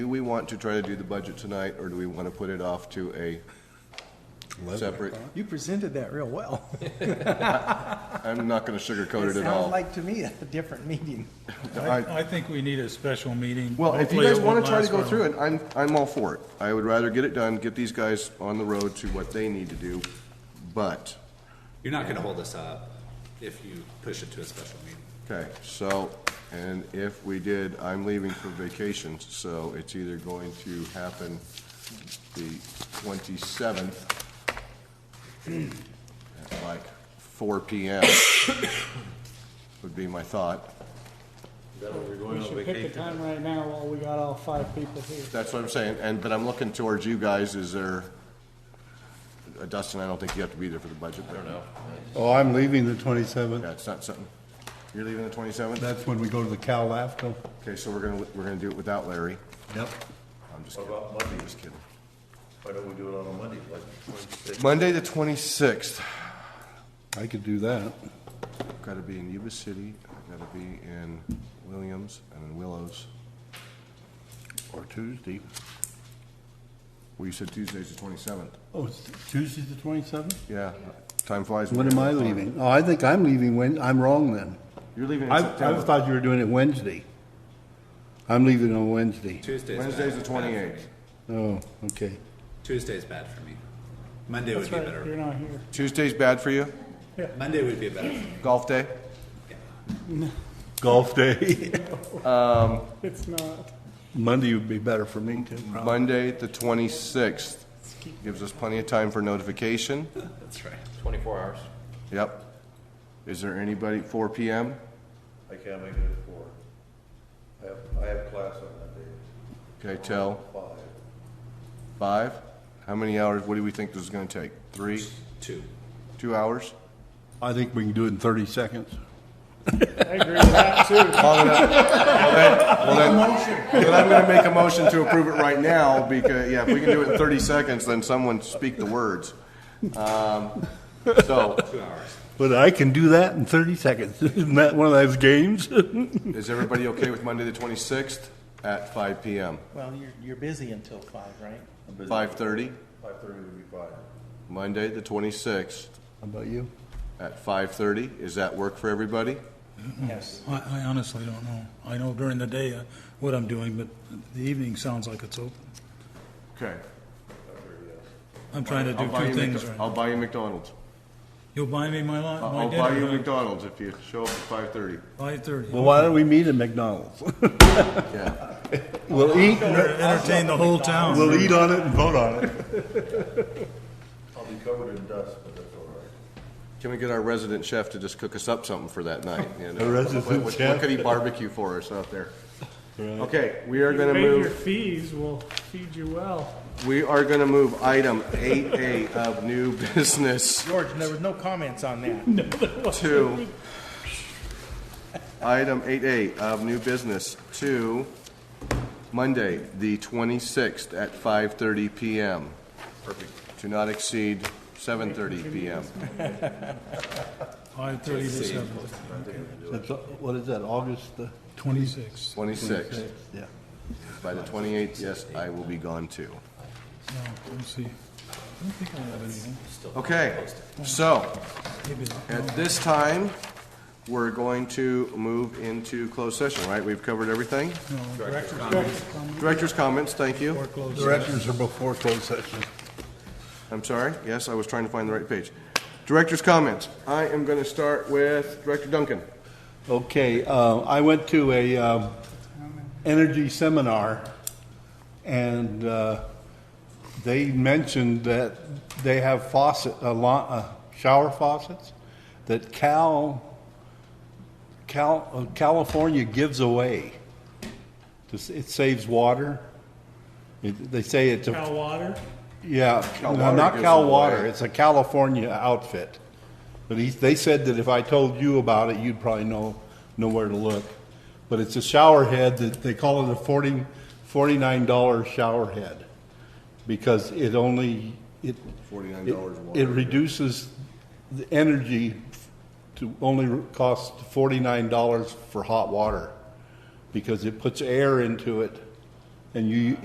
Do we want to try to do the budget tonight, or do we want to put it off to a separate? You presented that real well. I'm not going to sugarcoat it at sounds all. like to me a different meeting. I- I think we need a special meeting. Well, if you Hopefully it guys want won't to try to last go very through long. it, I'm, I'm all for it. I would rather get it done, get these guys on the road to what they need to do, but, You're not gonna hold us up if you push it to a special meeting. okay, so, and if we did, I'm leaving for vacation, so it's either going to happen the 27th at like 4 PM would be my thought. We should pick a time right now while we got all five people here. That's what I'm saying, and, but I'm looking towards you guys, is there, uh, Dustin, I don't think you have to be there for the budget. I don't know. Oh, I'm leaving the 27th. Yeah, it's not something, you're leaving the twenty-seventh? That's when we go to the Cal LAFCO. Okay, so we're gonna, we're gonna do it without Larry. Yep. I'm just What kidding, about Monday? I'm just kidding. Why don't we do it on a Monday, like twenty-sixth? Monday, the twenty-sixth, I could do that. I've gotta be in Yuba City, I've gotta be in Williams and in Willows. Or Tuesday. Well, you said Tuesday's the twenty-seventh. Oh, it's Tuesday the 27th? Yeah, time flies. when When am you're I having fun. leaving? Oh, I think I'm leaving Wed, I'm wrong then. You're leaving in I, I September. thought you were doing it Wednesday. I'm leaving on Wednesday. Tuesday's bad. Wednesday's the bad for me. twenty-eighth. Oh, okay. Tuesday's bad for me. Monday would That's be right, better. you're not here. Tuesday's bad for you? Monday would be better. for me. Golf day? Golf day. It's not. Monday would be better for me too. probably. Monday, the twenty-sixth. Gives us plenty of time for notification. That's right. Yep. Is there anybody, four PM? I can't make it at four. I have, I have class on that day, Okay, tell. five. Five? How many hours, what do we think this is gonna take? Three, Two. two hours? I think we can do it in 30 seconds. I agree with that too. Long enough? Well, then, well then, then I'm gonna make a motion to approve it right now, because, yeah, if we can do it in thirty seconds, then someone speak the words. Um, so, Two hours. But I can do that in 30 seconds. Isn't that one of those games? is everybody okay with Monday the twenty-sixth at five PM? Well, you're, you're busy until five, right? Five-thirty, Five-thirty would be fine. Monday the twenty-sixth How about you? at five-thirty, is that work for everybody? Yes. I, I honestly don't know. I know during the day uh, what I'm doing, but the evening sounds like it's open. Okay. I'm trying to do I'll buy two you things Mc- right. I'll buy you McDonald's. You'll buy me my lunch, I'll my Uh, I'll buy you dinner, McDonald's if you show up at five-thirty. five thirty. Well, why don't we meet at McDonald's? Yeah. We'll eat, Entertain the whole town. we'll eat on it and vote on it. I'll be covered in dust, but that's all right. Can we get our resident chef to just cook us up something for that night? you know? A resident What- what- What chef? could he barbecue for us out there? Okay, we are gonna Maybe your move, fees will feed you well. we are gonna move item eight A of new business George, there was no comments on that. to item eight A of new business to Monday, the twenty-sixth at five thirty PM. Perfect. To not exceed seven thirty PM. Five thirty to seven, That's, uh, What is that, August the? twenty-six. Twenty-sixth. Yeah. By the twenty-eighth, yes, I will be gone too. No, let me see. I don't think I have anything. Okay, so, Maybe not. at this time, we're going to move into closed session, right? We've covered everything? Director's comments, thank you. Directors are before closed session. I'm sorry, yes, I was trying to find the right page. Director's comments. I am going to start with Director Duncan. Okay, uh, I went to a um, energy seminar, and uh, they mentioned that they have faucet, a lot, uh, shower faucets that Cal, Cal, uh, California gives away. To s- It saves water. It, they say it's a Cal water, Yeah, Cal no, Water not gives Cal it Water, away. it's a California outfit. But he, they said that if I told you about it, you'd probably know, know where to look. But it's a shower head that, they call it a forty, forty-nine dollar shower head. Because it only, it. $49 it- water. It reduces the energy to only cost forty-nine dollars for hot water. Because it puts air into it and you,